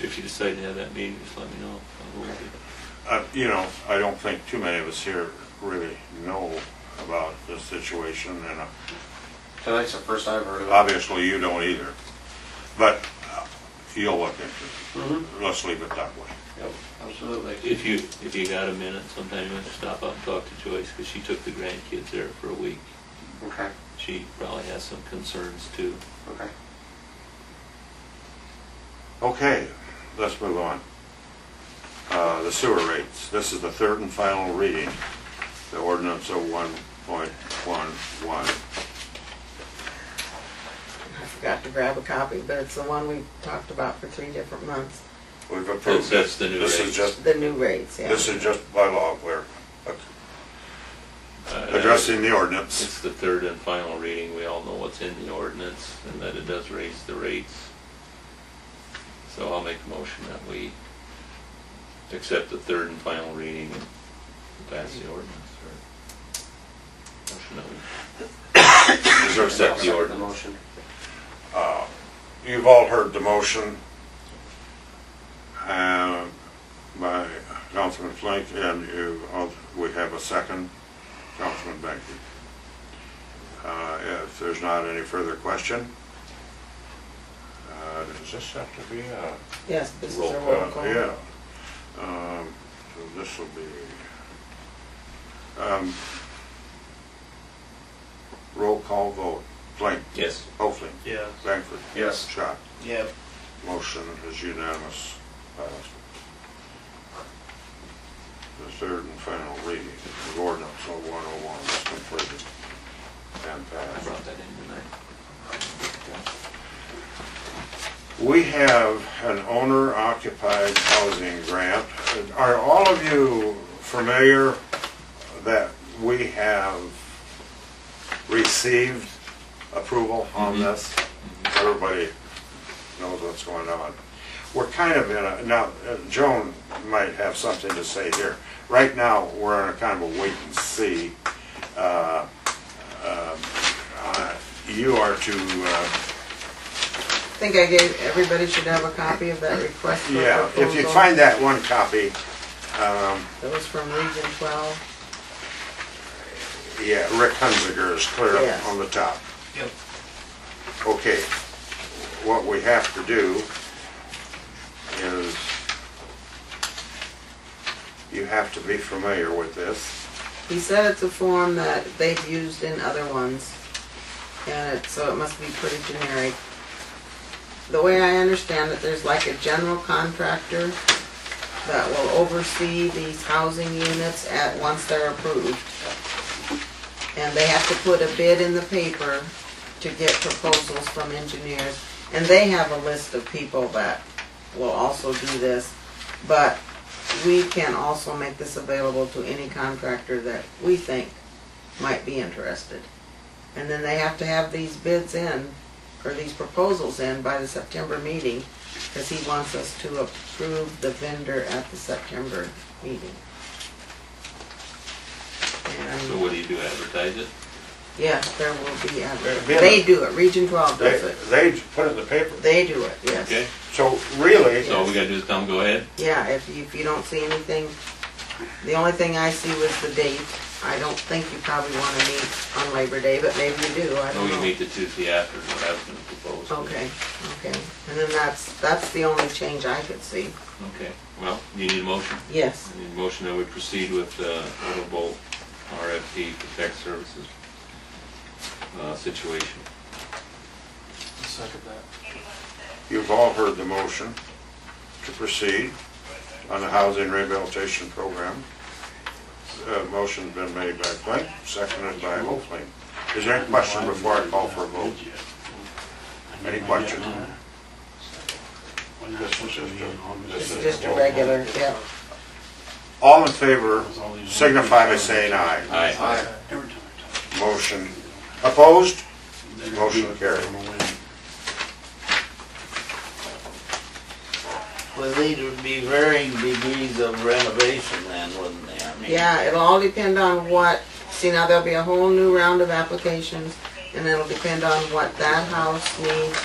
if you decide to have that meeting, just let me know. I will be. Uh, You know, I don't think too many of us here really know about this situation, and uh, Tonight's the first I've heard of it. obviously you don't either. But uh, you'll look into Mhm. it. Let's leave it that way. Yep, absolutely. If you, if you got a minute, sometime you want to stop up and talk to Joyce, because she took the grandkids there for a week. Okay, She probably has some concerns too. okay. Okay, let's move on. Uh, The sewer rates. This is the third and final reading, the ordinance oh of 1.11. I forgot to grab a copy, but it's the one we talked about for three different months, We've approved this. That's the new This rates. is just, the new rates, yeah. this is just by law, we're Uh, addressing the ordinance. It's the third and final reading. We all know what's in the ordinance and that it does raise the rates. So I'll make a motion that we accept the third and final reading and pass the ordinance. or- Motion that we- Is there a Accept second? the ordinance. motion. Uh, You've all heard the motion uh, by Councilman Flake, and you, all- we have a second, Councilman Benke. Uh, If there's not any further question, uh, does this have to be a? Yes, this is a Roll roll call. Yeah. Um, So this will be, um, roll call vote. Flake, Yes. Hoefling, Yes. Langford. Yes. Schott. Yep. Motion is unanimous. Passed. The third and final reading of ordinance 0101 is completed and I passed. brought that in tonight. We have an owner occupied housing grant. Are all of you familiar that we have received approval on this? Everybody knows what's going on. We're kind of in a, now, uh, Joan might have something to say here. Right now, we're in a kind of a wait and see. Uh, um, uh, You are to uh, I think I gave, everybody should have a copy of that request for Yeah, if you proposal. find that one copy, um, That was from Region twelve, yeah, Rick Hunziker is clear up Yes. on the top. Yep. Okay, what we have to do is, you have to be familiar with this. he said it's a form that they've used in other ones, and it, so it must be pretty generic. The way I understand it, there's like a general contractor that will oversee these housing units at, once they're approved. and they have to put a bid in the paper to get proposals from engineers. And they have a list of people that will also do this, but we can also make this available to any contractor that we think might be interested. And then they have to have these bids in, or these proposals in by the September meeting, because he wants us to approve the vendor at the September meeting. And- So what do you do, advertise it? Yes, there will be There'll advertising. be a- They do it, Region 12 They, does it. they put it in the paper. They do it, yes. Okay, So really, so all we gotta do is tell them, go ahead? Yeah, if you, if you don't see anything, the only thing I see was the date. I don't think you probably want to meet on Labor Day, but maybe you do, I No, don't we can know. meet the Tuesday after, is what I was gonna propose. Okay, okay. And then that's, that's the only change I could see. Okay, well, you need a motion? Yes, I need a motion that we proceed with the auto bolt RFP for tech services uh, situation. Second that. you've all heard the motion to proceed on the housing rehabilitation program. Uh, Motion's been made by Flint, seconded by Hoefling. Is there any question before I call for a vote? Any questions? this is just a regular, yeah. All in favor signify by saying aye. Aye. Motion opposed? Motion carried. Well, these would be varying degrees of renovation then, wouldn't they? I mean, Yeah, it'll all depend on what, see now there'll be a whole new round of applications, and it'll depend on what that house needs